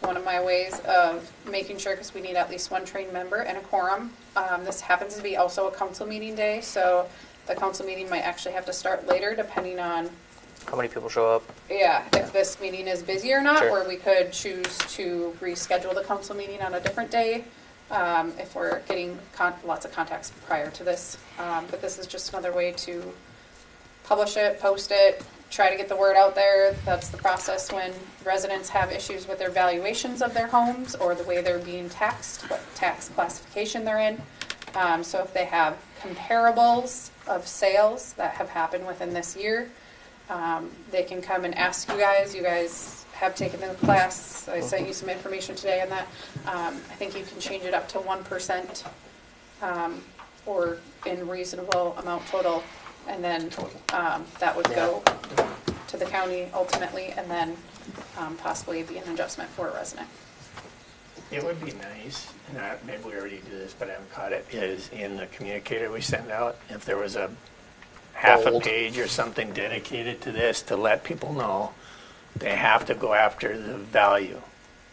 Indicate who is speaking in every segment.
Speaker 1: one of my ways of making sure, because we need at least one trained member and a quorum. Um, This happens to be also a council meeting day, so the council meeting might actually have to start later depending on,
Speaker 2: How many people show up?
Speaker 1: yeah, if this meeting is busy or not.
Speaker 2: Sure.
Speaker 1: Or we could choose to reschedule the council meeting on a different day um, if we're getting con- lots of contacts prior to this. Um, But this is just another way to publish it, post it, try to get the word out there. That's the process when residents have issues with their valuations of their homes or the way they're being taxed, what tax classification they're in. Um, so if they have comparables of sales that have happened within this year, um, they can come and ask you guys. You guys have taken the class. I sent you some information today on that. Um, I think you can change it up to one percent um, or in reasonable amount total, and then um, that would go to the county ultimately, and then um, possibly be an adjustment for a resident.
Speaker 3: It would be nice, and I, maybe we already do this, but I haven't caught it, is in the communicator we send out, if there was a half a
Speaker 2: Bold.
Speaker 3: page or something dedicated to this, to let people know they have to go after the value.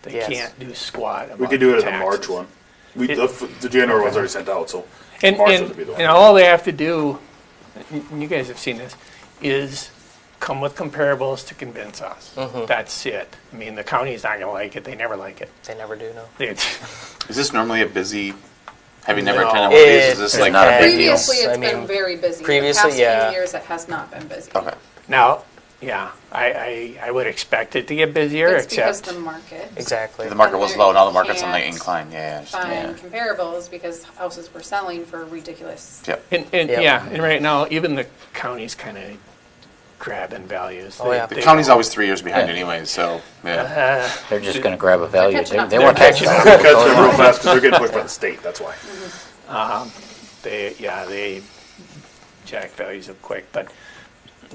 Speaker 3: They
Speaker 2: Yes.
Speaker 3: can't do squat about
Speaker 4: We could do it in the
Speaker 3: taxes.
Speaker 4: March one. We,
Speaker 3: It-
Speaker 4: the, the January one's already sent out, so
Speaker 3: And,
Speaker 4: March
Speaker 3: and,
Speaker 4: would be the
Speaker 3: and
Speaker 4: one.
Speaker 3: all they have to do, and you guys have seen this, is come with comparables to convince us. That's it. I mean, the county's not gonna like it, they never like it.
Speaker 2: They never do, no.
Speaker 3: It's,
Speaker 5: Is this normally a busy? Have you never
Speaker 3: No.
Speaker 5: attended one of these?
Speaker 2: It-
Speaker 5: Is this
Speaker 2: it's
Speaker 5: like
Speaker 2: not
Speaker 5: not a big deal?
Speaker 1: Previously,
Speaker 2: I
Speaker 1: it's
Speaker 2: mean,
Speaker 1: been very busy.
Speaker 2: previously,
Speaker 1: The past
Speaker 2: yeah.
Speaker 1: few years, it has not been busy.
Speaker 5: Okay.
Speaker 3: Now, yeah, I, I, I would expect it to get busier,
Speaker 1: It's because
Speaker 3: except,
Speaker 1: the market
Speaker 2: Exactly.
Speaker 5: The market was
Speaker 1: There
Speaker 5: low. Now the
Speaker 1: you
Speaker 5: market's on the
Speaker 1: can't
Speaker 5: incline. Yeah, yeah,
Speaker 1: find comparables because houses were selling for ridiculous.
Speaker 5: yeah. Yep.
Speaker 3: and, and,
Speaker 2: Yeah.
Speaker 3: yeah, and right now, even the county's kind of grabbing values.
Speaker 2: Oh,
Speaker 3: They-
Speaker 2: yeah.
Speaker 5: The
Speaker 3: they
Speaker 5: county's
Speaker 3: don't-
Speaker 5: always three years behind
Speaker 6: Yeah.
Speaker 5: anyway, so yeah.
Speaker 1: Uh-huh.
Speaker 6: They're just gonna grab a value.
Speaker 1: catching
Speaker 6: They,
Speaker 1: up.
Speaker 6: they
Speaker 1: They're
Speaker 6: want
Speaker 3: catching up.
Speaker 6: that.
Speaker 4: Catch them real fast because they're getting pushed by the state, that's why.
Speaker 3: They, yeah, they jack values up quick, but,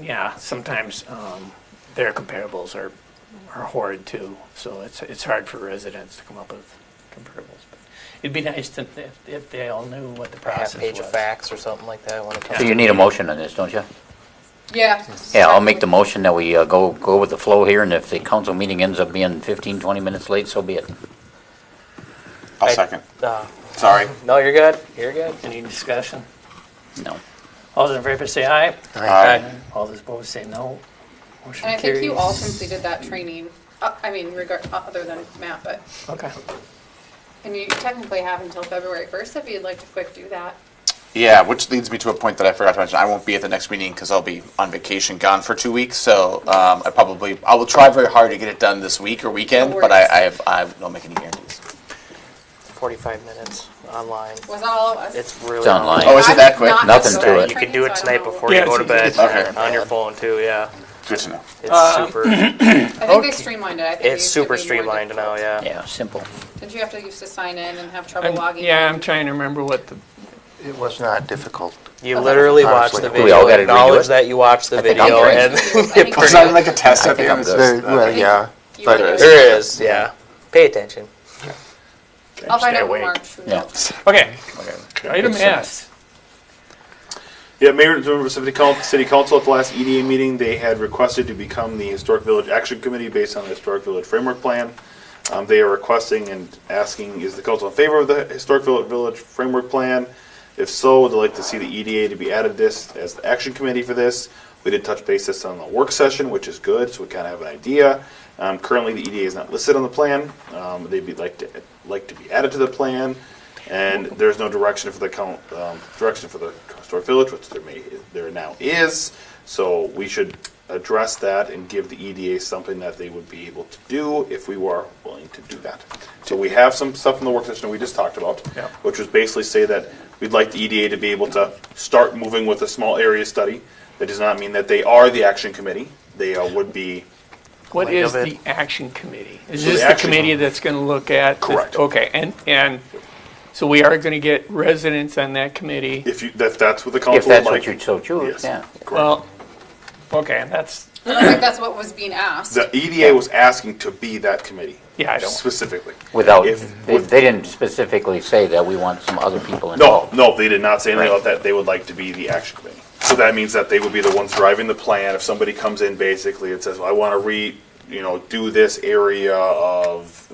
Speaker 3: yeah, sometimes, um, their comparables are, are horrid too, so it's, it's hard for residents to come up with comparables. but It'd be nice to, if, if they all knew what the process
Speaker 2: Half
Speaker 3: was.
Speaker 2: page of facts or something like that. I want to
Speaker 6: So you need a motion on this, don't you?
Speaker 1: Yeah.
Speaker 6: Yeah, I'll make the motion that we uh, go, go with the flow here, and if the council meeting ends up being 15, 20 minutes late, so be it.
Speaker 5: I'll
Speaker 2: I-
Speaker 5: second.
Speaker 2: uh,
Speaker 5: Sorry.
Speaker 2: No, you're good. You're good.
Speaker 3: Any discussion?
Speaker 6: No.
Speaker 3: All those in favor say aye.
Speaker 5: Aye.
Speaker 3: All those opposed say no. Motion
Speaker 1: And I think you all
Speaker 3: carries.
Speaker 1: completed that training, uh, I mean, regard, other than Matt, but,
Speaker 3: Okay.
Speaker 1: and you technically have until February 1st if you'd like to quick do that.
Speaker 5: Yeah, which leads me to a point that I forgot to mention. I won't be at the next meeting because I'll be on vacation, gone for two weeks. So um, I probably I will try very hard to get it done this week or weekend,
Speaker 1: No
Speaker 5: but I,
Speaker 1: worries.
Speaker 5: I have I don't make any guarantees.
Speaker 2: 45 minutes online.
Speaker 1: Was that all of us?
Speaker 2: It's really
Speaker 6: It's online. Oh,
Speaker 5: Oh, is it that quick?
Speaker 1: Not
Speaker 6: Nothing
Speaker 1: just
Speaker 6: to
Speaker 1: the
Speaker 6: it.
Speaker 2: You
Speaker 1: training,
Speaker 2: can do
Speaker 1: so
Speaker 2: it
Speaker 1: I don't
Speaker 2: tonight
Speaker 1: know.
Speaker 2: before you
Speaker 3: Yeah,
Speaker 2: go to bed.
Speaker 3: it's-
Speaker 5: Okay.
Speaker 2: On your phone too, yeah.
Speaker 5: Good to know.
Speaker 2: It's
Speaker 3: Uh,
Speaker 2: super.
Speaker 1: I think they streamlined it. I think it
Speaker 2: It's
Speaker 1: used to
Speaker 2: super
Speaker 1: be more
Speaker 2: streamlined now,
Speaker 1: difficult.
Speaker 2: yeah.
Speaker 6: Yeah, simple.
Speaker 1: Did you have to used to sign in and have trouble
Speaker 3: I'm-
Speaker 1: logging?
Speaker 3: Yeah,
Speaker 1: in?
Speaker 3: I'm trying to remember what the,
Speaker 7: It was not difficult.
Speaker 2: You literally watch the
Speaker 7: Honestly,
Speaker 2: video.
Speaker 6: we all gotta redo
Speaker 2: acknowledge
Speaker 6: it.
Speaker 2: that you watched the
Speaker 6: I think I'm
Speaker 2: video,
Speaker 6: great.
Speaker 2: and
Speaker 1: I think
Speaker 5: It's
Speaker 1: you-
Speaker 5: not even like a test at the
Speaker 6: think
Speaker 5: end.
Speaker 6: I'm
Speaker 5: It's
Speaker 6: good.
Speaker 5: just,
Speaker 7: Very- Well, yeah,
Speaker 1: you
Speaker 7: but
Speaker 2: uh,
Speaker 1: were-
Speaker 2: there is, yeah. Pay attention.
Speaker 1: I'll find
Speaker 3: Stay
Speaker 1: out in
Speaker 3: awake.
Speaker 1: March. who
Speaker 6: Yeah.
Speaker 1: knows.
Speaker 3: okay,
Speaker 6: Whatever.
Speaker 3: item
Speaker 6: It's, uh,
Speaker 3: S.
Speaker 4: Yeah, Mayor and members of the coun- City Council at the last EDA meeting, they had requested to become the Historic Village Action Committee based on the Historic Village Framework Plan. Um, They are requesting and asking, is the council in favor of the Historic Vill- Village Framework Plan? If so, would they like to see the EDA to be added this, as the action committee for this? We did touch base this on the work session, which is good, so we kind of have an idea. Um, Currently, the EDA is not listed on the plan. Um, They'd be like to, like to be added to the plan. And there's no direction for the count, um, direction for the historic village, which there may, there now is. So we should address that and give the EDA something that they would be able to do if we were willing to do that. So we have some stuff in the work session we just talked about,
Speaker 3: Yeah.
Speaker 4: which was basically say that we'd like the EDA to be able to start moving with a small area study. That does not mean that they are the action committee. They uh, would be
Speaker 3: What
Speaker 7: Leg
Speaker 3: is
Speaker 7: of
Speaker 3: the
Speaker 7: it.
Speaker 3: action committee? Is
Speaker 4: So the
Speaker 3: this the
Speaker 4: action-
Speaker 3: committee that's going to look at? this-
Speaker 4: Correct.
Speaker 3: Okay, and, and, so we are going to get residents on that committee.
Speaker 4: if you if that's what the council
Speaker 6: If that's
Speaker 4: would like.
Speaker 6: what you so choose,
Speaker 4: yes,
Speaker 6: yeah.
Speaker 4: correct.
Speaker 3: Well, okay, that's,
Speaker 1: I don't think that's what was being asked.
Speaker 4: The EDA was asking to be that committee.
Speaker 3: Yeah, I don't-
Speaker 4: Specifically.
Speaker 6: Without,
Speaker 4: If-
Speaker 6: they, they didn't specifically say that we want some other people
Speaker 4: No,
Speaker 6: involved.
Speaker 4: no, they did not say anything about that. They would like to be the action committee. So that means that they would be the ones driving the plan. If somebody comes in basically and says, "Well, I want to re, you know, do this area of